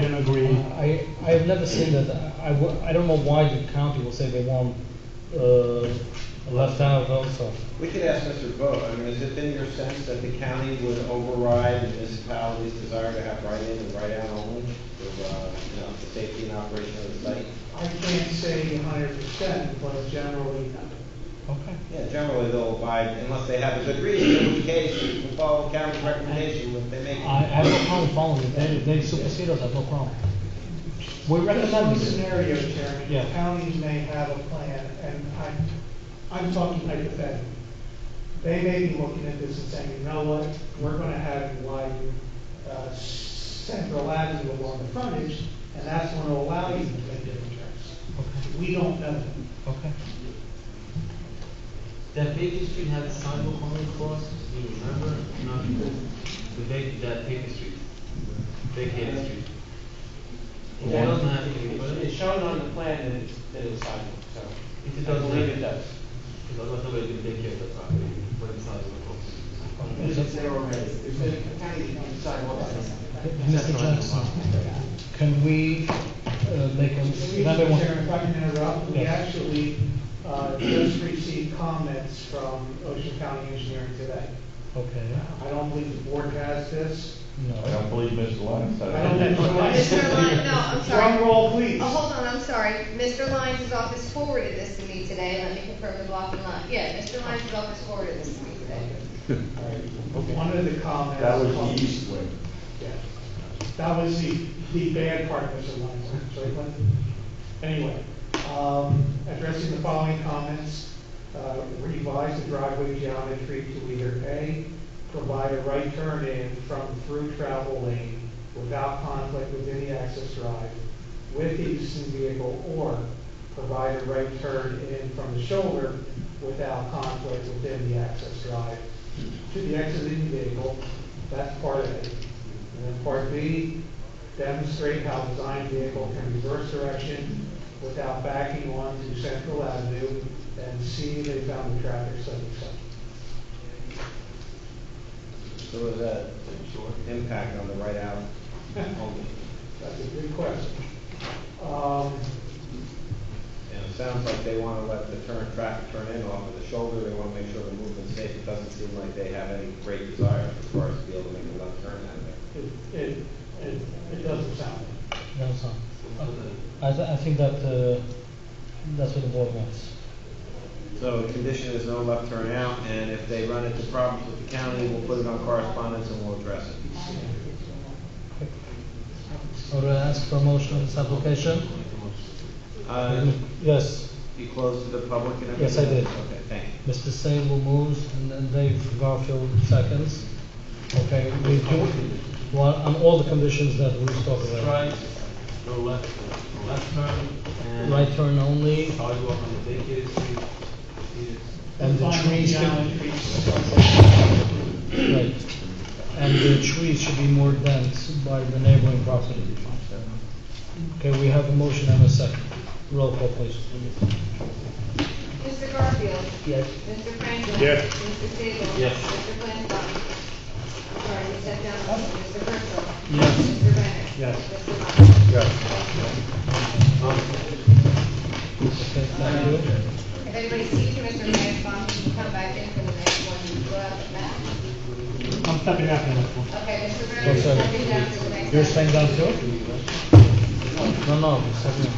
didn't agree. I, I've never seen that, I, I wo- I don't know why the county will say they want, uh, left out also. We could ask Mr. Vogt, I mean, is it in your sense that the county would override the municipality's desire to have write-in and write-out only for, uh, you know, the safety and operation of the site? I can't say hundred percent, but generally, no. Okay. Yeah, generally they'll abide unless they have a good reason, in which case we follow the county's recommendation if they make. I, I have no problem following it, they, they supersede us, I have no problem. We There's one recommend it. scenario, Chairman, Yeah. counties may have a plan, and I'm, I'm talking hypothetically. They may be looking at this and saying, you know what, we're gonna have you widen, uh, Central Avenue along the frontage, and that's gonna allow you to make different turns. Okay, We don't know that. okay. That Baker Street had a sidewalk only across, do you remember? Not the Baker, that Baker Street, Baker Street. It Yeah. doesn't have any, but It's it, shown on the plan that it's, that it's sidewalk, so. if it I doesn't, believe it because does. I thought nobody could take care of that property when it's sidewalk. It's there already. If the county owns sidewalks, it's- Mr. Jackson, can we, uh, make a, another Mr. Chairman, one? if I can interrupt, we Yes. actually uh, just received comments from Ocean County Engineering today. Okay, I don't believe the board has this. I no. don't believe Mr. Lyons said it. I don't think- Mr. Lyons, no, I'm sorry. Drum roll, please. Oh, hold on, I'm sorry. Mr. Lyons' office forwarded this to me today, let me confirm the block and lot. Yeah, Mr. Lyons' office forwarded this to me today. One of the comments. That was the east wing. Yeah. That was the, the bad part, Mr. Lyons, sorry, but, anyway, um, addressing the following comments, uh, revise the driveway geometry to either A, provide a right turn in from through travel lane without conflict with any access drive with the existing vehicle, or provide a right turn in from the shoulder without conflict within the access drive to the exiting vehicle, that's part of it. And then part B, demonstrate how design vehicle can reverse direction without backing onto Central Avenue and see they found the traffic study site. So was that impact on the write-out only? That's a good question. Um, And it sounds like they want to let the turn, traffic turn in off of the shoulder, they want to make sure the movement's safe. It doesn't seem like they have any great desire for cars to be able to make a left turn out of there. it, it, it, it doesn't sound. No, sir. I, th- I think that, uh, that's what the board wants. So the condition is no left turn out, and if they run into problems with the county, we'll put it on correspondence and we'll address it. So do I ask for a motion on this application? Uh, Yes. You closed to the public and Yes, everything? I did. Okay, thank you. Mr. Sable moves and then Dave Garfield seconds. Okay, we do, well, on all the conditions that we talked about. Right, no left, no left turn, and. Right turn only Sidewalk on the Baker Street, and the Design trees, should- geometry, sunset. right. And the trees should be more dense by the neighboring property. Okay, we have a motion and a second. Roll call please. Mr. Garfield. Yes. Mr. Franklin. Yes. Mr. Sable. Yes. Mr. Flansbrough. I'm sorry, you stepped down. Mr. Herzl. Yes. Mr. Renner. Yes. Mr. Okay, Lyons. thank you. If anybody sees you, Mr. Flansbrough, you can come back in for the next one, you go out the back. I'm stepping out for that one. Okay, Mr. Renner, you're Yes, sir. stepping down for the next. You're one. saying that too? No, no, second.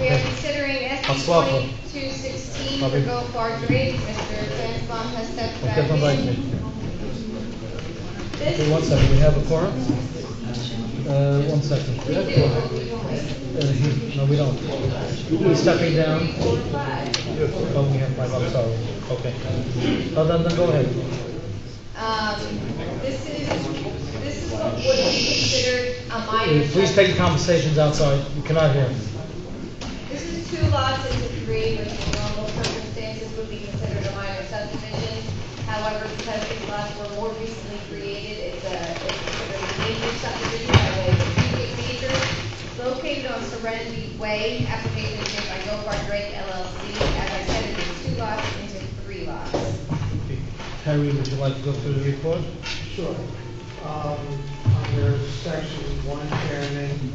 We are considering I'll SB swap her. twenty-two sixteen I'll for be- Go Far Grade. Mr. Flansbrough has stepped back Okay, come back in. here. This Okay, one second, we have a quorum? Uh, one second. we do, but we don't wait. Uh, No, we don't. We're stepping down. Three, four, five. Oh, we have five, I'm sorry. Okay. No, then, then go ahead. Um, this is, this is what would be considered a minor. Uh, Please take the conversations outside, we cannot hear. This is two lots into three, which in normal circumstances would be considered a minor subdivision. However, because these lots were more recently created, it's a, it's considered a major subdivision by way of immediate major. Located on Serenity Way, application is made by Gopar Drake LLC. As I said, it is two lots into three lots. Harry, would you like to go through the report? Sure. Um, Under section one, Chairman,